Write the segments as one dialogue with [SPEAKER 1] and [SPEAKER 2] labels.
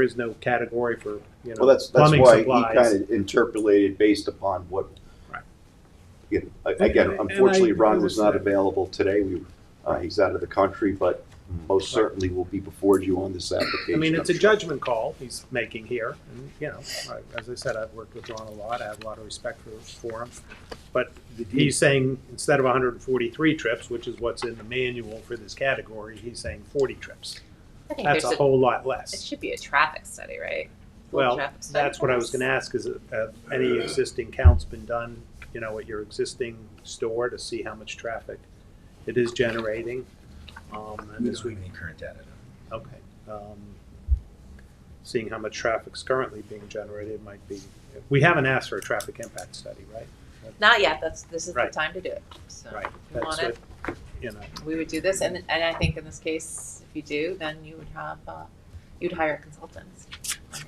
[SPEAKER 1] there is no category for, you know,
[SPEAKER 2] Well, that's, that's
[SPEAKER 1] plumbing
[SPEAKER 2] why he
[SPEAKER 1] supplies.
[SPEAKER 2] kind of interpolated based upon what.
[SPEAKER 1] Right.
[SPEAKER 2] Yeah, a- Again,
[SPEAKER 1] And- and
[SPEAKER 2] unfortunately,
[SPEAKER 1] I
[SPEAKER 2] Ron was not
[SPEAKER 1] understand.
[SPEAKER 2] available today. We, uh, he's out of the country, but most certainly will be before you on this
[SPEAKER 1] I
[SPEAKER 2] application.
[SPEAKER 1] mean, it's a
[SPEAKER 2] I'm sure.
[SPEAKER 1] judgment call he's making here, and, you know, I- as I said, I've worked with Ron a lot, I have a lot of respect for, for him. But he's saying, instead of hundred and forty-three trips, which is what's in the manual for this category, he's saying forty trips.
[SPEAKER 3] I think
[SPEAKER 1] That's
[SPEAKER 3] there's
[SPEAKER 1] a whole lot less.
[SPEAKER 3] It should be a traffic study, right?
[SPEAKER 1] Well,
[SPEAKER 3] Traffic study
[SPEAKER 1] that's what I was
[SPEAKER 3] first.
[SPEAKER 1] gonna ask, is, uh, any existing counts been done, you know, at your existing store to see how much traffic it is generating? Um, and
[SPEAKER 4] We
[SPEAKER 1] as
[SPEAKER 4] don't
[SPEAKER 1] we,
[SPEAKER 4] have any current data.
[SPEAKER 1] okay, um, seeing how much traffic's currently being generated might be, we haven't asked for a traffic impact study, right?
[SPEAKER 3] Not yet, that's, this is the
[SPEAKER 1] Right.
[SPEAKER 3] time to do it, so.
[SPEAKER 1] Right,
[SPEAKER 3] if you
[SPEAKER 1] that's
[SPEAKER 3] want it,
[SPEAKER 1] what, you know,
[SPEAKER 3] we would do this, and, and I think in this case, if you do, then you would have, uh, you'd hire consultants. on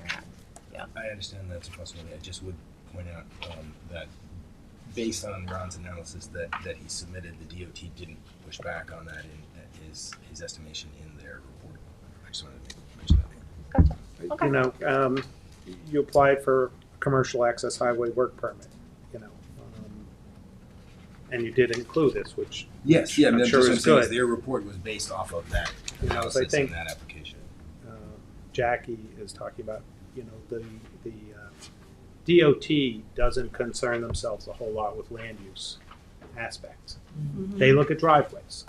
[SPEAKER 3] your end.
[SPEAKER 4] I understand that's a possibility. I just would point out um, that based on Ron's analysis that, that he submitted, the DOT didn't push back on that in his, his estimation in their report. I just wanted to mention that.
[SPEAKER 3] Okay.
[SPEAKER 1] you know, um, you applied for a commercial access highway work permit, you know. um, And you did include this, which
[SPEAKER 4] Yes, yeah,
[SPEAKER 1] I'm
[SPEAKER 4] that's
[SPEAKER 1] sure
[SPEAKER 4] just what
[SPEAKER 1] it's
[SPEAKER 4] I'm saying is
[SPEAKER 1] good.
[SPEAKER 4] Their report was based off of that
[SPEAKER 1] You know, so I
[SPEAKER 4] analysis and
[SPEAKER 1] think-
[SPEAKER 4] that application.
[SPEAKER 1] uh, Jackie is talking about, you know, the, uh, the uh, DOT doesn't concern themselves a whole lot with land use aspects. They look at driveways.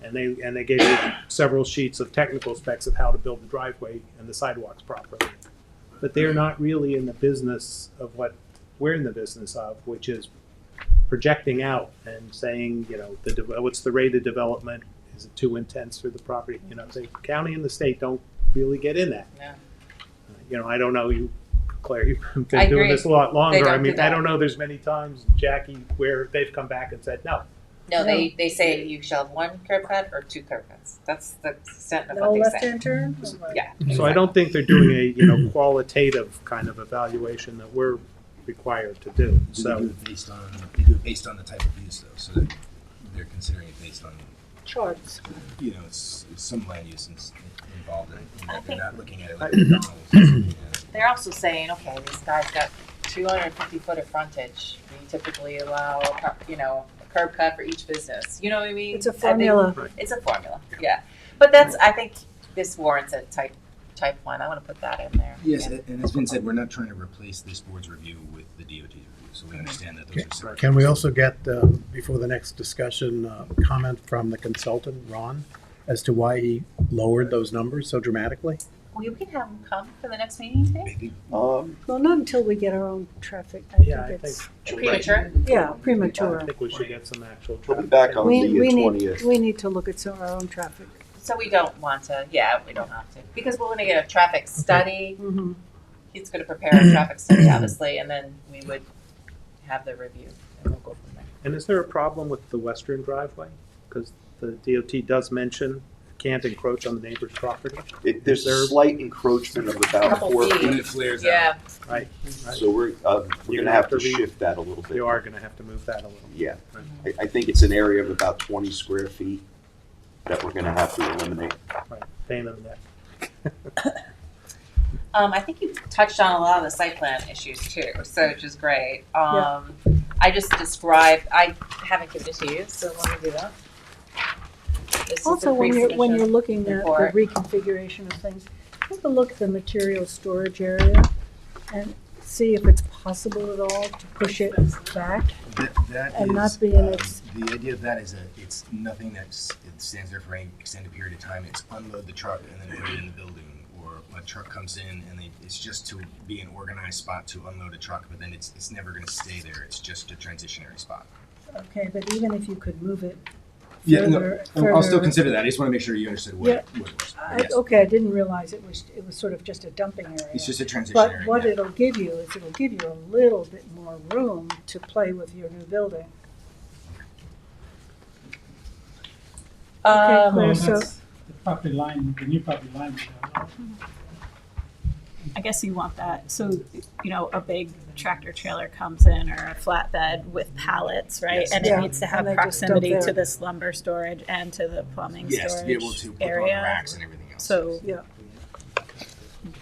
[SPEAKER 1] And they, and they gave you several sheets of technical specs of how to build the driveway and the sidewalks properly. But they're not really in the business of what we're in the business of, which is projecting out and saying, you know, the, de- what's the rate of development? Is it too intense for the property? You know, the county and the state don't really get in that.
[SPEAKER 3] Yeah.
[SPEAKER 1] You know, I don't know, you, Claire, you've
[SPEAKER 3] I
[SPEAKER 1] been doing
[SPEAKER 3] agree.
[SPEAKER 1] this a lot longer. I
[SPEAKER 3] don't do
[SPEAKER 1] mean, I
[SPEAKER 3] that.
[SPEAKER 1] don't know, there's many times, Jackie, where they've come back and said, no,
[SPEAKER 3] No, they, they say you shall have one curb cut or two curb cuts, that's the extent of
[SPEAKER 5] No
[SPEAKER 3] what they say.
[SPEAKER 5] left hand turn? Oh
[SPEAKER 3] Yeah.
[SPEAKER 1] So I don't think they're doing a, you know, qualitative kind of evaluation that we're required to do,
[SPEAKER 4] Do they do
[SPEAKER 1] so.
[SPEAKER 4] it based on, they do it based on the type of use though, so that they're considering it based on,
[SPEAKER 5] Charts.
[SPEAKER 4] you know, it's, it's some land use ins- involved in it.
[SPEAKER 3] I
[SPEAKER 4] and They're
[SPEAKER 3] think-
[SPEAKER 4] not looking at it like McDonald's. or something, you know.
[SPEAKER 3] They're also saying, okay, this guy's got two hundred and fifty foot of frontage, we typically allow, a cur- you know, a curb cut for each business, you know what I mean?
[SPEAKER 5] It's a
[SPEAKER 3] I think-
[SPEAKER 5] formula.
[SPEAKER 3] It's a formula, yeah, but that's, I think this warrants a type, type one, I wanna put that in there.
[SPEAKER 4] Yes,
[SPEAKER 3] Yeah.
[SPEAKER 4] and and as Vin said, we're not trying to replace this board's review with the DOT's review, so we understand that those are separate.
[SPEAKER 6] Can we also get, um, before the next discussion, uh, comment from the consultant, Ron, as to why he lowered those numbers so dramatically?
[SPEAKER 3] We can have them come for the next meeting, you think?
[SPEAKER 2] Um,
[SPEAKER 5] Well, not until we get our own traffic. I
[SPEAKER 1] Yeah, I
[SPEAKER 5] think it's,
[SPEAKER 3] Premature?
[SPEAKER 5] yeah,
[SPEAKER 1] I
[SPEAKER 5] premature.
[SPEAKER 1] think we should get some actual.
[SPEAKER 2] We'll be back on
[SPEAKER 5] We,
[SPEAKER 2] the uh,
[SPEAKER 5] we need,
[SPEAKER 2] 20th.
[SPEAKER 5] we need to look at some, our own traffic.
[SPEAKER 3] So we don't want to, yeah, we don't have to, because we're gonna get a traffic study,
[SPEAKER 5] Mhm.
[SPEAKER 3] he's gonna prepare a traffic study, obviously, and then we would have the review, and we'll go from there.
[SPEAKER 1] And is there a problem with the western driveway? Because the DOT does mention can't encroach on the neighbor's property,
[SPEAKER 2] It, there's a
[SPEAKER 1] There-
[SPEAKER 2] slight encroachment of about
[SPEAKER 3] Couple
[SPEAKER 2] four
[SPEAKER 3] feet.
[SPEAKER 2] feet,
[SPEAKER 4] When it flares out.
[SPEAKER 3] Yeah,
[SPEAKER 1] right? Right.
[SPEAKER 2] so we're, uh, we're
[SPEAKER 1] You're
[SPEAKER 2] gonna have to
[SPEAKER 1] re-
[SPEAKER 2] shift that a little bit.
[SPEAKER 1] They are gonna have to move that a little.
[SPEAKER 2] Yeah,
[SPEAKER 1] Right.
[SPEAKER 2] I, I think it's an area of about twenty square feet that we're gonna have to eliminate.
[SPEAKER 1] Right. Pain in the neck.
[SPEAKER 3] um, I think you touched on a lot of the site plan issues too, so which is great. Um, I just described, I haven't given it to you, so let me do that. This is the
[SPEAKER 5] Also, when you're, when
[SPEAKER 3] pre-submission.
[SPEAKER 5] you're looking at the
[SPEAKER 3] report.
[SPEAKER 5] reconfiguration of things, take a look at the material storage area and see if it's possible at all to push it back.
[SPEAKER 4] That, that
[SPEAKER 5] And
[SPEAKER 4] is,
[SPEAKER 5] not be in
[SPEAKER 4] um,
[SPEAKER 5] its-
[SPEAKER 4] The idea of that is that it's nothing that's, it stands there for any extended period of time. It's unload the truck and then put it in the building. Or a truck comes in and they, it's just to be an organized spot to unload a truck, but then it's, it's never gonna stay there. It's just a transitionary spot.
[SPEAKER 5] Okay, but even if you could move it
[SPEAKER 4] Yeah, no,
[SPEAKER 5] further,
[SPEAKER 4] I'll I'll still
[SPEAKER 5] further-
[SPEAKER 4] consider that. I just wanna make sure you understood what, it- what it was.
[SPEAKER 5] I-
[SPEAKER 4] Yes.
[SPEAKER 5] Okay, I didn't realize it was, it was sort of just a dumping area.
[SPEAKER 4] It's just a transitionary.
[SPEAKER 5] But what
[SPEAKER 4] yeah.
[SPEAKER 5] it'll give you is it'll give you a little bit more room to play with your new building.
[SPEAKER 3] Um,
[SPEAKER 5] Claire,
[SPEAKER 7] Well,
[SPEAKER 5] so-
[SPEAKER 7] that's the property line, the new property line.
[SPEAKER 8] I guess you want that. So, you know, a big tractor trailer comes in or a flatbed with pallets, right?
[SPEAKER 4] Yes.
[SPEAKER 8] And
[SPEAKER 5] Yeah,
[SPEAKER 8] it needs to have
[SPEAKER 5] and they just dump
[SPEAKER 8] proximity to
[SPEAKER 5] there.
[SPEAKER 8] this lumber storage and to the plumbing
[SPEAKER 4] Yes, to be able
[SPEAKER 8] storage
[SPEAKER 4] to put on
[SPEAKER 8] area.
[SPEAKER 4] racks and everything else.
[SPEAKER 8] So,
[SPEAKER 5] Yeah.